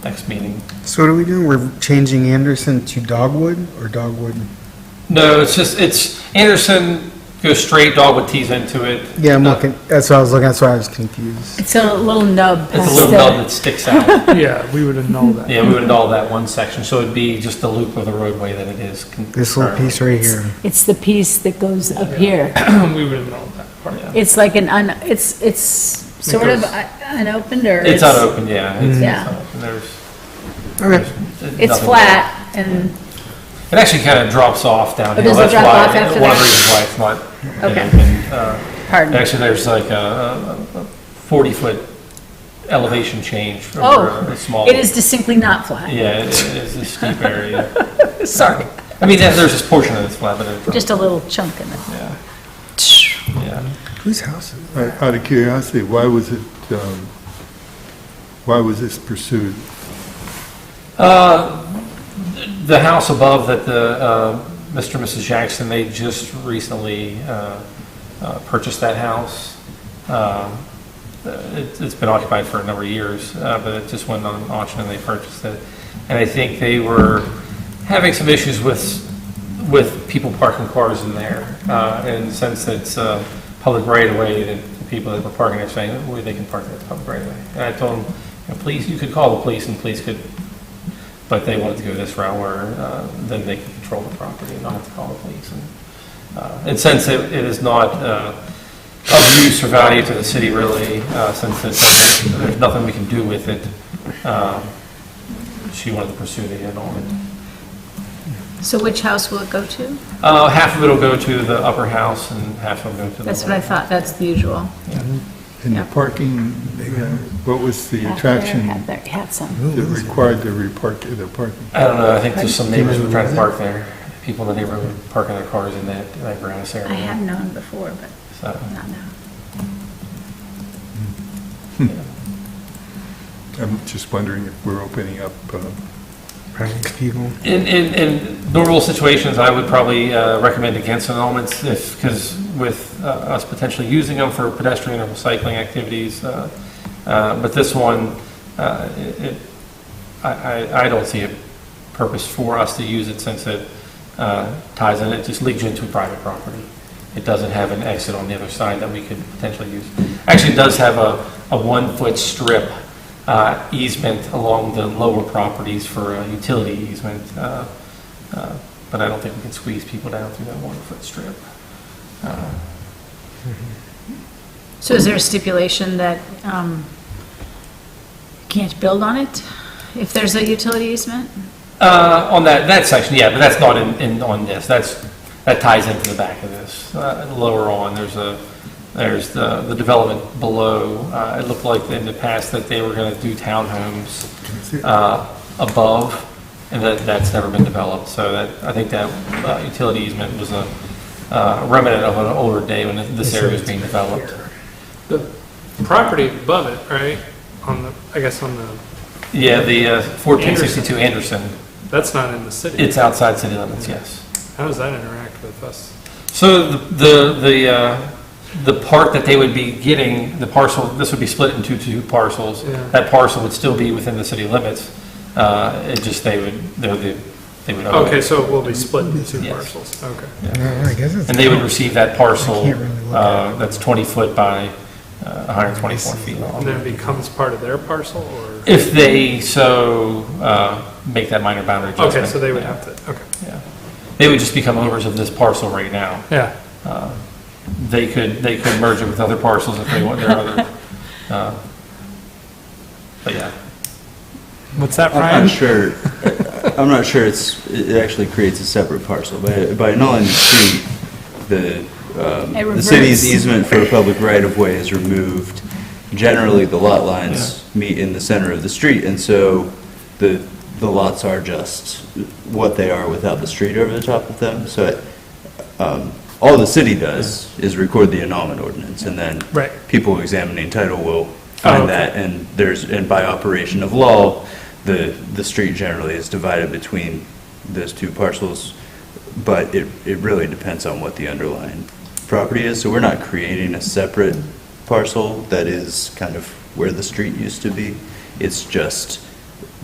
next meeting. So what are we doing? We're changing Anderson to Dogwood or Dogwood? No, it's just, it's, Anderson goes straight, Dogwood tees into it. Yeah, I'm No, looking, that's what I was looking, that's why I was confused. It's a little nub It's a past little nub the, that sticks out. Yeah, we would have known that. Yeah, we would all that one section, so it'd be just the loop of the roadway that it is. con- This little currently. piece right here. it's the piece that goes up here. We would have known that part. Yeah. It's like an, un. it's, it's sort of un- unopened or? It's unopened, yeah. it's- it's Yeah. unopened. There's- Okay. there's It's nothing flat and, there. It actually kind of drops off downhill. does it That's drop why- off after One of that? the reasons why it's not. you know, Okay. been, uh, pardon, Actually, there's like a 40-foot elevation change from Oh, a small. it is distinctly not flat, Yeah, it is a steep area. sorry, I mean, there's there's this portion that's flat, but it. just a little chunk in it. Yeah, yeah. Whose house is Out out of curiosity, why was it, um, why was this pursued? Uh, The house above that the, uh, Mr. and Mrs. Jackson, they just recently uh, uh, purchased that house. Um, it- It's been occupied for a number of years, uh, but it just went on auction and they purchased it. And I think they were having some issues with, with people parking cars in there. Uh, And since it's uh, public right-of-way, the the people that were parking there saying, where they can park in the public right-of-way. And I told them, "You know, police, you could call the police and police could but they wanted to go this route where uh, then they can control the property and not have to call the police. And, uh, And since it it is not uh, of use or value to the city really, uh, since it's- there's nothing we can do with it, um, she wanted to pursue the end on it. So which house will it go to? Uh, Half of it will go to the upper house and half will go to the. That's what I thought, that's the usual. And Yeah. the parking, uh, what was the attraction Had there- had some. that required the repark, the parking? I don't know, I think just some neighbors were trying to park there. People in the neighborhood were parking their cars in that that grass area. I have known before, but So, not now. I'm just wondering if we're opening up, uh, Private people. In, in, in normal situations, I would probably uh, recommend against annulments if, because with uh, us potentially using them for pedestrian or cycling activities. uh, uh, But this one, uh, it, it- I, I, I don't see a purpose for us to use it since it uh, ties in, it just leads you into private property. It doesn't have an exit on the other side that we could potentially use. Actually, it does have a, a one-foot strip uh, easement along the lower properties for a utility easement, uh, uh, but I don't think we can squeeze people down through that one-foot strip. Uh, So is there a stipulation that um, you can't build on it if there's a utility easement? Uh, On that, that section, yeah, but that's not in, in, on this, that's, that ties into the back of this. Uh, Lower on, there's a, there's the, the development below, Uh, it looked like in the past that they were gonna do townhomes uh, above, and that, that's never been developed, so that, I think that uh, utility easement was a uh, remnant of an older day when this area was being developed. The property above it, right, on the, I guess on the, Yeah, the uh, 1462 Anderson, that's not in the city. it's outside city limits, yes. How does that interact with us? So the, the- the, uh, the part that they would be getting, the parcel, this would be split into two parcels. Yeah. That parcel would still be within the city limits, uh, it just, they would, they're the, they would. own it. Okay, so it will be split into two Yes. parcels, okay. No, I guess it's. And they would receive that parcel, I can't really look uh, at that's 20 foot by uh, 124 feet And long. then it becomes part of their parcel, or? If they so uh, make that minor boundary adjustment. Okay, so they would yeah, have to, okay, Yeah. They would just become owners of this parcel right now. yeah. They could, they could merge it with other parcels if they want their other, uh, but yeah. What's that, I'm Brian? not sure, I'm not sure it's, it actually creates a separate parcel. By by annulling the street, the, um, It the city's reverts. easement for a public right-of-way is removed. Generally, the lot lines meet in the center of the street, and so the, the lots are just what they are without the street over the top of them. So um, all the city does is record the annulment ordinance, and then Right. people examining title will Oh, find okay. that, and there's, and by operation of law, the, the street generally is divided between those two parcels, but it, it really depends on what the underlying property is, so we're not creating a separate parcel that is kind of where the street used to be, it's just